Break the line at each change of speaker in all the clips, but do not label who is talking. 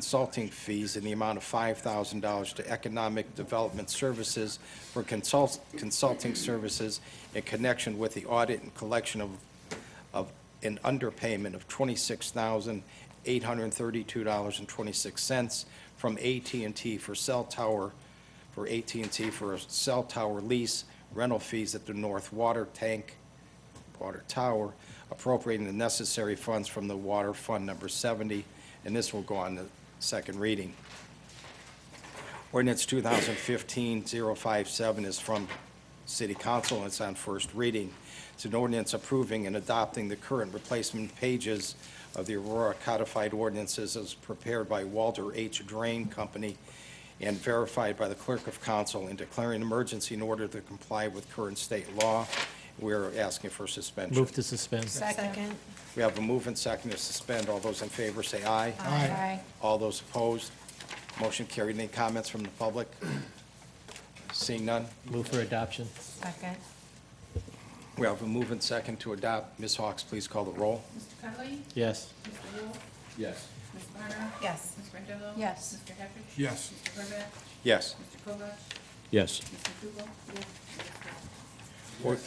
consulting fees in the amount of $5,000 to Economic Development Services for consult- consulting services in connection with the audit and collection of of an underpayment of $26,832.26 from at and T for cell tower, for at and T for a cell tower lease, rental fees at the North Water Tank, Water Tower, appropriating the necessary funds from the Water Fund Number 70, and this will go on the second reading. Ordinance 2015-057 is from City Council, and it's on first reading. It's an ordinance approving and adopting the current replacement pages of the Aurora codified ordinances as prepared by Walter H. Drain Company and verified by the Clerk of Council and declaring emergency in order to comply with current state law. We're asking for suspension.
Move to suspend.
Second.
We have a move and second to suspend. All those in favor say aye.
Aye.
All those opposed? Motion carried. Any comments from the public? Seeing none,
Move for adoption.
Second.
we have a move and second to adopt. Ms. Hawks, please call the roll.
Mr. Cudley?
Yes.
Mr. Wolf?
Yes.
Ms. Barner?
Yes.
Ms. Randall?
Yes.
Mr. Hafford?
Yes.
Mr. Herbeck?
Yes.
Mr. Kovak?
Yes.
Mr. Dugal? Yes.
Or-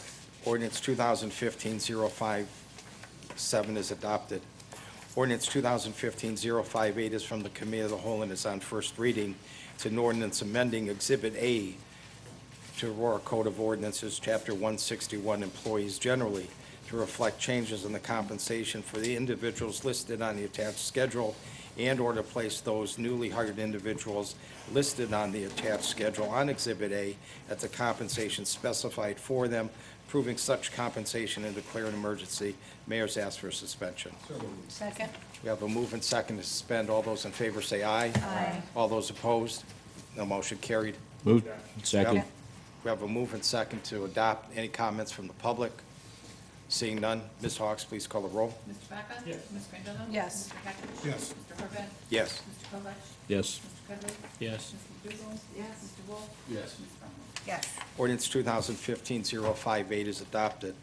Ordinance 2015-057 is adopted. Ordinance 2015-058 is from the Committee of the Whole and is on first reading. It's an ordinance amending Exhibit A to Aurora Code of Ordinances, Chapter 161, Employees Generally, to reflect changes in the compensation for the individuals listed on the attached schedule and/or to place those newly hired individuals listed on the attached schedule on Exhibit A at the compensation specified for them, proving such compensation and declare an emergency. Mayor's asked for suspension.
Second.
We have a move and second to suspend. All those in favor say aye.
Aye.
All those opposed? No motion carried.
Move,
We
second,
have- We have a move and second to adopt. Any comments from the public? Seeing none, Ms. Hawks, please call the roll.
Mr. Vaca? Yes. Ms. Randall?
Yes.
Mr. Hafford?
Yes.
Mr. Herbeck?
Yes.
Mr. Kovak?
yes.
Mr. Cudley?
Yes.
Mr. Dugal? Yes. Mr. Wolf? Yes. Ms. Barner?
Yes.
Ordinance 2015-058 is adopted.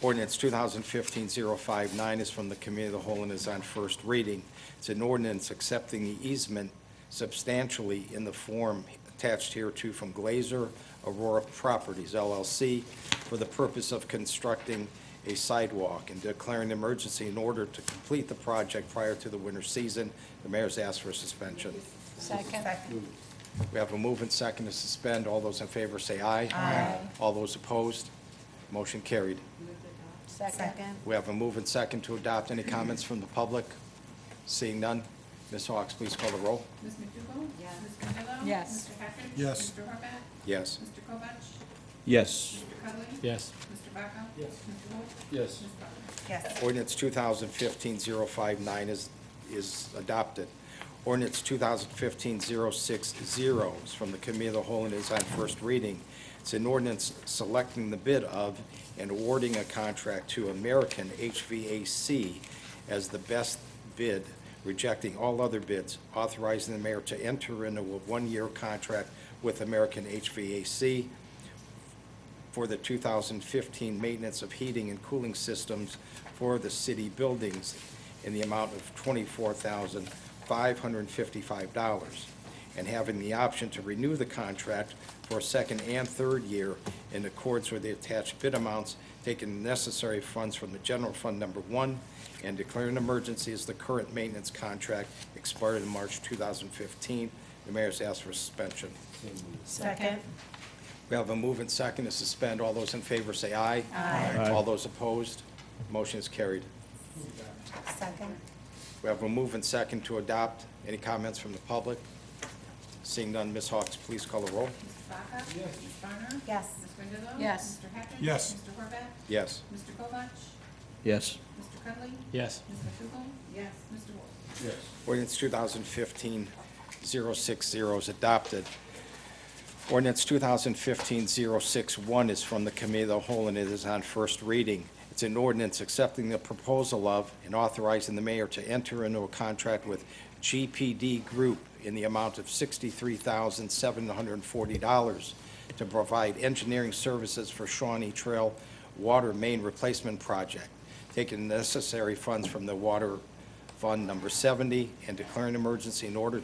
Ordinance 2015-059 is from the Committee of the Whole and is on first reading. It's an ordinance accepting the easement substantially in the form attached hereto from Glazer Aurora Properties LLC for the purpose of constructing a sidewalk and declaring emergency in order to complete the project prior to the winter season. The mayor's asked for suspension.
Second.
We have a move and second to suspend. All those in favor say aye. Aye. All those opposed? Motion carried.
Second.
We have a move and second to adopt. Any comments from the public? Seeing none, Ms. Hawks, please call the roll.
Ms. McDougal? Yes. Ms. Randall?
Yes.
Mr. Hafford?
Yes.
Mr. Herbeck?
Yes.
Mr. Kovak?
Yes.
Mr. Cudley?
Yes.
Mr. Vaca? Yes. Mr. Wolf?
Yes.
Ms. Barner?
Yes.
Ordinance 2015-059 is, is adopted. Ordinance 2015-060 is from the Committee of the Whole and is on first reading. It's an ordinance selecting the bid of and awarding a contract to American HVAC as the best bid, rejecting all other bids, authorizing the mayor to enter into a one-year contract with American HVAC for the 2015 maintenance of heating and cooling systems for the city buildings in the amount of $24,555, and having the option to renew the contract for a second and third year in accordance with the attached bid amounts, taking necessary funds from the general fund number one, and declaring an emergency as the current maintenance contract expired in March 2015. The mayor's asked for suspension.
Second.
We have a move and second to suspend. All those in favor say aye. Aye. All those opposed, motion is carried.
Second.
We have a move and second to adopt. Any comments from the public? Seeing none, Ms. Hawks, please call the roll.
Mr. Vaca? Yes. Ms. Barner?
Yes.
Ms. Randall?
Yes.
Mr. Hafford?
Yes.
Mr. Herbeck?
Yes.
Mr. Kovak?
Yes.
Mr. Cudley?
Yes.
Ms. McDougal? Yes. Mr. Wolf?
Ordinance 2015-060 is adopted. Ordinance 2015-061 is from the Committee of the Whole, and it is on first reading. It's an ordinance accepting the proposal of and authorizing the mayor to enter into a contract with GPD Group in the amount of $63,740 to provide engineering services for Shawnee Trail Water Main Replacement Project, taking necessary funds from the Water Fund Number 70 and declaring emergency in order